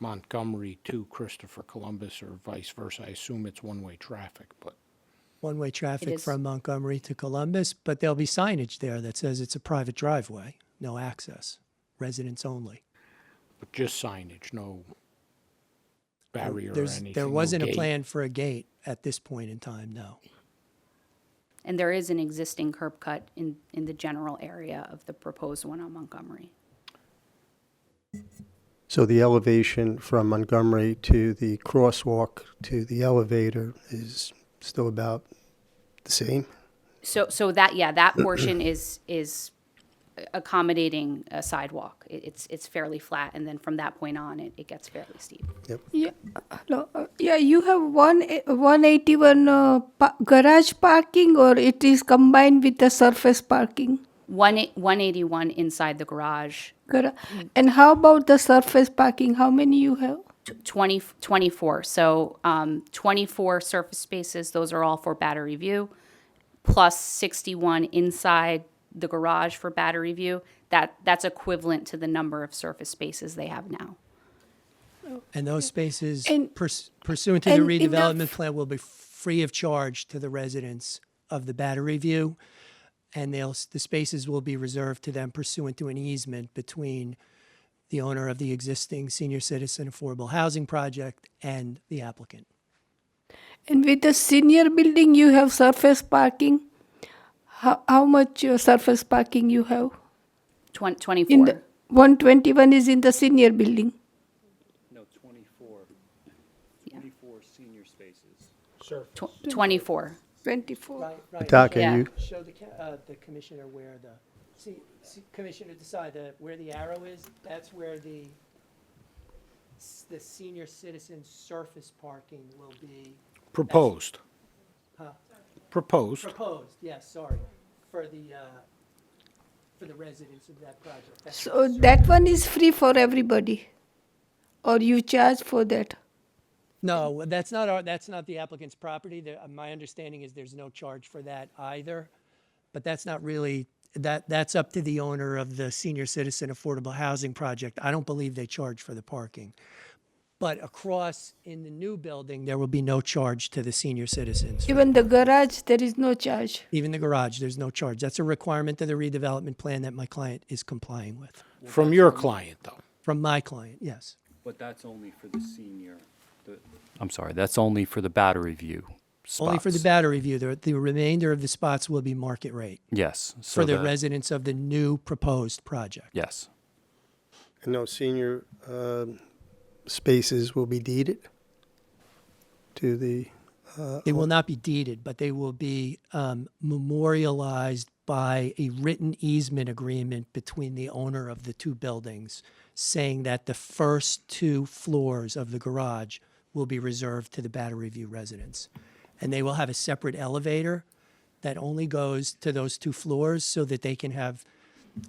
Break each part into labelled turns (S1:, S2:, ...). S1: Montgomery to Christopher Columbus or vice versa. I assume it's one-way traffic, but
S2: one-way traffic
S3: is.
S2: from Montgomery to Columbus, but there'll be signage there that says it's a private driveway, no access, residents only.
S1: but just signage, no barrier or
S2: There's-
S1: anything.
S2: There
S1: no
S2: wasn't a
S1: gate.
S2: plan for a gate at this point in time, no.
S3: And there is an existing curb cut in, in the general area of the proposed one on Montgomery.
S4: So the elevation from Montgomery to the crosswalk to the elevator is still about the same?
S3: So, so that, yeah, that portion is, is accommodating a sidewalk. It- It's, it's fairly flat, and then from that point on, it, it gets fairly steep.
S5: Yeah, hello. uh, Yeah, you have one e- 181 uh, pa- garage parking or it is combined with the surface parking?
S3: One, eight- 181 inside the garage,
S5: Gara- And how about the surface parking? How many you have?
S3: tw- 20, 24, so um, 24 surface spaces, those are all for battery view, plus 61 inside the garage for battery view. That, that's equivalent to the number of surface spaces they have now.
S2: And those spaces
S5: And-
S2: purs- pursuant to the
S5: and in the
S2: redevelopment
S5: f-
S2: plan will be free of charge to the residents of the Battery View. And they'll, s- the spaces will be reserved to them pursuant to an easement between the owner of the existing senior citizen affordable housing project and the applicant.
S5: And with the senior building, you have surface parking? How, how much uh, surface parking you have?
S3: Twen-
S5: In
S3: 24,
S5: the 121 is in the senior building.
S6: No, 24. 24 senior spaces.
S3: Tw- 24.
S5: 24.
S4: Doc,
S3: Yeah.
S4: are you,
S2: show the, ca- uh, the commissioner where the, see, see, commissioner decide that where the arrow is, that's where the, s- the senior citizen surface parking will be
S1: Proposed,
S2: huh,
S1: proposed.
S2: proposed, yes, sorry, for the, uh, for the residents of that project. That's
S5: So that one is free for everybody? Or you charge for that?
S2: No, that's not our, that's not the applicant's property. There- uh, My understanding is there's no charge for that either. But that's not really, that, that's up to the owner of the senior citizen affordable housing project. I don't believe they charge for the parking. But across in the new building, there will be no charge to the senior citizens.
S5: Even the garage, there is no charge.
S2: Even the garage, there's no charge. That's a requirement of the redevelopment plan that my client is complying with.
S1: From your client, though.
S2: From my client, yes.
S6: But that's only for the senior, the. I'm sorry, that's only for the battery view spots.
S2: Only for the battery view. The, the remainder of the spots will be market rate
S6: Yes. so
S2: for the residents of the new proposed project.
S6: Yes.
S4: and no senior um, spaces will be deeded to the,
S2: They will not be deeded, but they will be um, memorialized by a written easement agreement between the owner of the two buildings, saying that the first two floors of the garage will be reserved to the Battery View residents. And they will have a separate elevator that only goes to those two floors so that they can have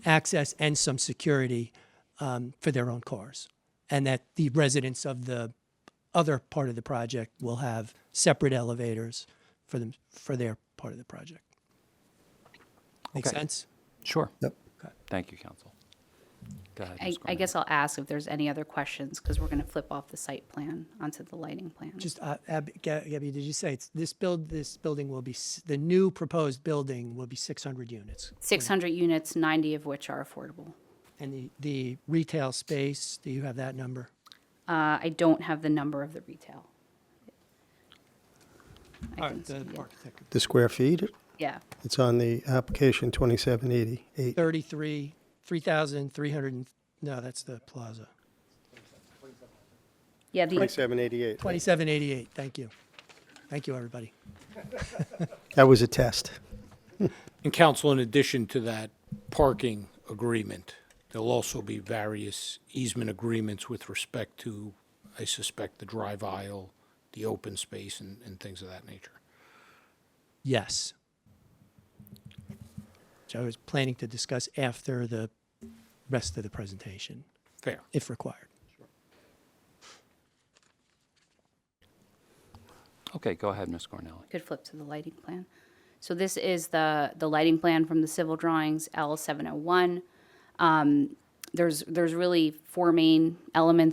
S2: access and some security um, for their own cars. And that the residents of the other part of the project will have separate elevators for them, for their part of the project. Make
S6: Okay.
S2: sense?
S6: Sure.
S4: Yep.
S6: Thank you, counsel. Go ahead.
S3: I,
S6: Ms.
S3: I
S6: Cormier.
S3: guess I'll ask if there's any other questions, because we're going to flip off the site plan onto the lighting plan.
S2: Just, uh, Ab- Ga- Gabby, did you say it's, this build, this building will be, s- the new proposed building will be six hundred units?
S3: 600 units, 90 of which are affordable.
S2: And the, the retail space, do you have that number?
S3: Uh, I don't have the number of the retail. I
S2: All
S3: can
S2: right, the
S3: see it.
S2: architect,
S4: the square feet?
S3: Yeah,
S4: It's on the application 2788.
S2: thirty-three, three thousand, three hundred and, no, that's the plaza.
S3: yeah, the,
S4: 2788.
S2: Twenty-seven eighty-eight, thank you. Thank you, everybody.
S4: That was a test.
S1: And council, in addition to that parking agreement, there'll also be various easement agreements with respect to, I suspect, the drive aisle, the open space, and, and things of that nature.
S2: Yes. Which I was planning to discuss after the rest of the presentation,
S1: Fair.
S2: if required.
S6: Okay, go ahead, Ms. Cornelli.
S3: could flip to the lighting plan. So this is the, the lighting plan from the civil drawings, L701. Um, There's, there's really four main elements